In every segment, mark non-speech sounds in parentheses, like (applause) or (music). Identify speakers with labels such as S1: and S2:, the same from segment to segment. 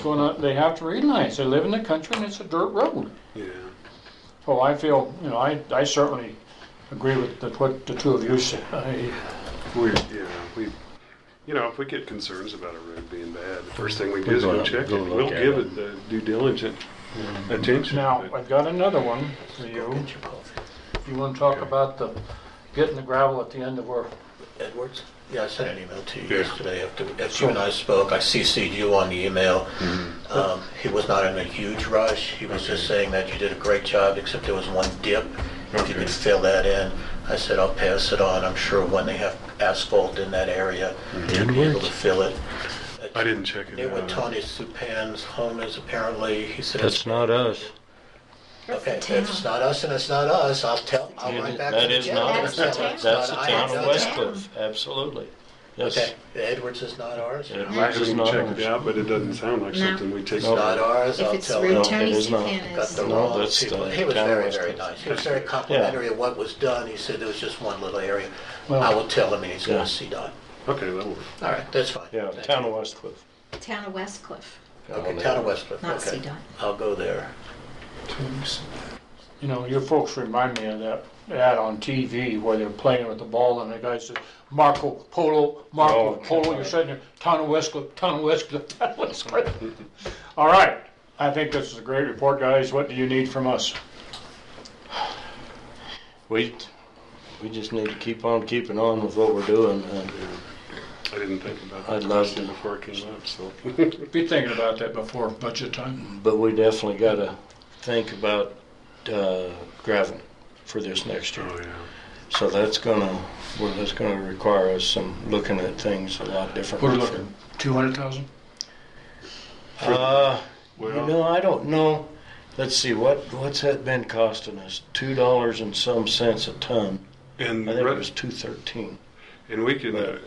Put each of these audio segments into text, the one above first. S1: gonna, they have to read lines. They live in the country and it's a dirt road.
S2: Yeah.
S1: So I feel, you know, I, I certainly agree with the, what the two of you said. (laughs) I,
S2: We, yeah, we, you know, if we get concerns about a road being bad, the first thing we do is
S3: We'll
S2: go
S3: go out-
S2: check it.
S3: go look
S2: We'll
S3: at
S2: give
S3: it.
S2: it the due diligent attention.
S1: now,
S2: but-
S1: I've got another one for you. If you wanna talk about the, getting the gravel at the end of where,
S4: Edwards? Yeah, I sent an email to you
S2: Yeah.
S4: yesterday after, after you and I spoke. I CC'd you on the email.
S2: Mm-hmm.
S4: Um, He was not in a huge rush. He was just saying that you did a great job, except there was one dip. If you could fill that in, I said, I'll pass it on. I'm sure when they have asphalt in that area, you'll be able to fill it.
S2: Mm-hmm. I didn't check it
S4: Near where
S2: out.
S4: Tony Supan's home is apparently, he said.
S3: That's not us.
S4: Okay, if it's not us and it's not us, I'll tell, I'll write back to the
S3: That is not,
S4: judge.
S3: us.
S5: That's
S3: that's
S5: the town.
S3: the
S4: I-
S3: town of
S4: I-
S3: West Cliff, absolutely. Yes.
S4: Okay, Edwards is not ours?
S3: Yeah,
S2: I
S3: it's
S2: haven't
S3: not
S2: checked
S3: us.
S2: it out, but it doesn't sound like
S5: No.
S2: something we take.
S3: No.
S4: Not ours,
S5: If
S4: I'll
S5: it's
S4: tell
S5: through
S4: them.
S5: Tony
S3: it is not.
S5: Supan
S4: Got
S5: is.
S4: the
S3: No,
S4: wrong
S3: that's
S4: people.
S3: the
S4: He was
S3: town
S4: very,
S3: west
S4: very
S3: coast.
S4: nice. He was very complimentary of what was done. He said there was just one little area. I will tell him and he's
S3: Yeah.
S4: gonna see Don.
S2: Okay, that'll work.
S4: All right, that's fine.
S3: Yeah,
S4: Thank
S3: town
S4: you.
S3: of West Cliff.
S5: Town of Westcliff,
S4: Okay, town of Westcliff,
S5: not
S4: okay.
S5: CDOT.
S4: I'll go there.
S1: you know, your folks remind me of that ad on TV where they're playing with the ball and the guy says, Marco Polo, Marco
S3: Oh,
S1: Polo, you're
S3: God.
S1: sitting there, town of Westcliff, town of Westcliff, town of Westcliff. (laughs) All right, I think this is a great report, guys. What do you need from us?
S3: We, we just need to keep on keeping on with what we're doing. uh, and
S2: I didn't think about
S3: I'd
S2: that
S3: love
S2: question
S3: to.
S2: before it came up, so.
S1: Be thinking about that before budget time.
S3: But we definitely gotta think about, uh, gravel for this next year.
S2: Oh, yeah.
S3: So that's gonna, well, that's gonna require us some looking at things a lot
S1: What
S3: differently.
S1: are we looking, two hundred thousand?
S3: Uh, you
S2: Well-
S3: know, I don't know. Let's see, what, what's that been costing us? Two dollars and some cents a ton.
S2: And,
S3: I think it
S2: Ru-
S3: was two thirteen.
S2: and we can, uh,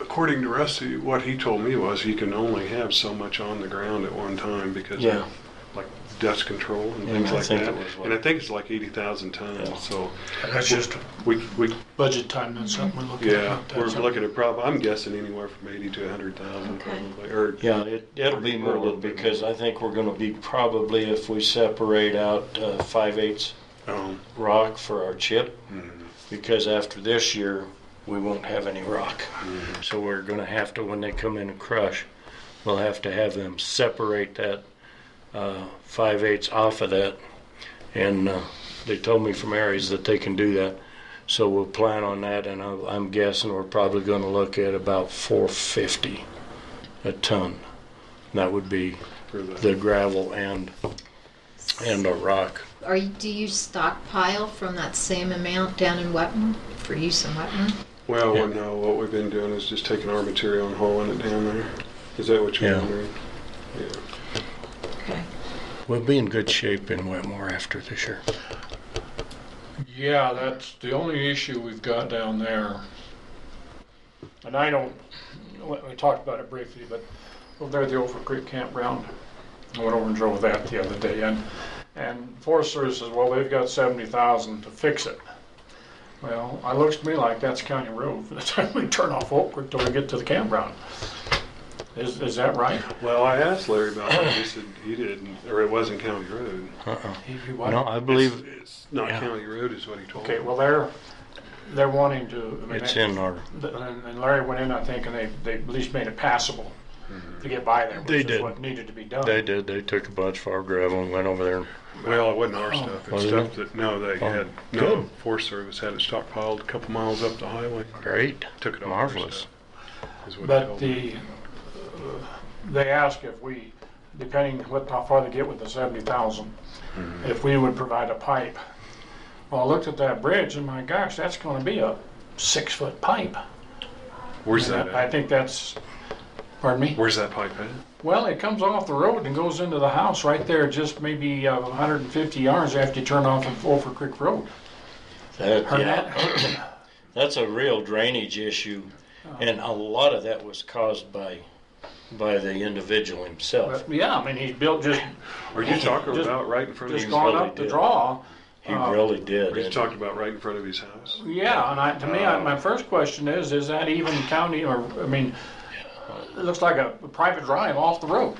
S2: according to Rusty, what he told me was you can only have so much on the ground at one time because
S3: Yeah.
S2: of like dust control and
S3: Yeah,
S2: things
S3: I
S2: like
S3: think it
S2: that.
S3: was what-
S2: And I think it's like eighty thousand
S3: Yeah.
S2: tons, so
S1: That's just
S2: we, we,
S1: budget time, that's something we're looking at.
S2: yeah,
S1: That's
S2: we're
S1: something-
S2: looking at prob, I'm guessing anywhere from eighty to a hundred thousand
S5: Okay.
S2: probably, or.
S3: Yeah, it, it'll be more little because I think we're gonna be probably, if we separate out, uh, five eighths
S2: Um,
S3: rock for our chip,
S2: mhm.
S3: because after this year, we won't have any rock. Mm-hmm. So we're gonna have to, when they come in and crush, we'll have to have them separate that, uh, five eighths off of that. And, uh, they told me from Aries that they can do that. So we'll plan on that and I'm, I'm guessing we're probably gonna look at about four fifty a ton. That would be
S2: For
S3: the
S2: the,
S3: gravel and, and the rock.
S5: Are you, do you stockpile from that same amount down in Wetton for use in Wetton?
S2: well,
S3: Yeah.
S2: no, what we've been doing is just taking our material and hauling it down there. Is that what you're
S3: Yeah.
S2: wondering? Yeah.
S5: Okay.
S3: We'll be in good shape in Wetmore after this year.
S1: Yeah, that's the only issue we've got down there. And I don't, we we talked about it briefly, but over there at the Over Creek Campground, I went over and drove that the other day, and, and Forest Service says, well, they've got seventy thousand to fix it. Well, it looks to me like that's county road from the time we turn off Oak Creek till we get to the campground. Is, is that right?
S2: Well, I asked Larry about it. He said he didn't, or it wasn't county road.
S3: Uh-uh. No,
S1: Okay,
S3: I believe
S2: It's, it's not
S3: Yeah.
S2: county road, is what he told me.
S1: well, they're, they're wanting to. I mean,
S3: it's
S1: they-
S3: in our,
S1: The- And and Larry went in, I think, and they, they at least made it passable to get by there,
S3: They
S1: which is
S3: did.
S1: what needed to be done.
S3: they did, they took a bunch of our gravel and went over there. and-
S2: Well, it wasn't our stuff. It's
S3: Wasn't
S2: stuff
S3: it?
S2: that, no, they
S3: Oh,
S2: had, no,
S3: good.
S2: Forest Service had it stockpiled a couple miles up the highway.
S3: Great,
S2: Took it off. their
S3: marvelous.
S2: stuff, is what he
S1: But
S2: told me.
S1: the, uh, they asked if we, depending what, how far they get with the seventy thousand, if we would provide a pipe. Well, I looked at that bridge and my gosh, that's gonna be a six-foot pipe.
S2: Where's
S1: And
S2: that
S1: I I
S2: at?
S1: think that's, pardon me?
S2: Where's that pipe at?
S1: Well, it comes off the road and goes into the house right there, just maybe uh, a hundred and fifty yards after you turn off of Wolf Creek Road.
S3: That,
S1: Heard
S3: yeah,
S1: that?
S3: that's a real drainage issue,
S1: Oh.
S3: and a lot of that was caused by, by the individual himself.
S1: But, Yeah, I mean, he's built just,
S2: Are you talking
S1: Just-
S2: about right in front of
S1: just
S2: his,
S3: gone-
S1: gone
S3: really
S1: up the
S3: did.
S1: draw.
S3: He
S1: uh,
S3: really did.
S2: are you
S3: and-
S2: talking about right in front of his house?
S1: Yeah, and I, to me, I- my first question is, is that even county or, I mean, it looks like a private drive off the road.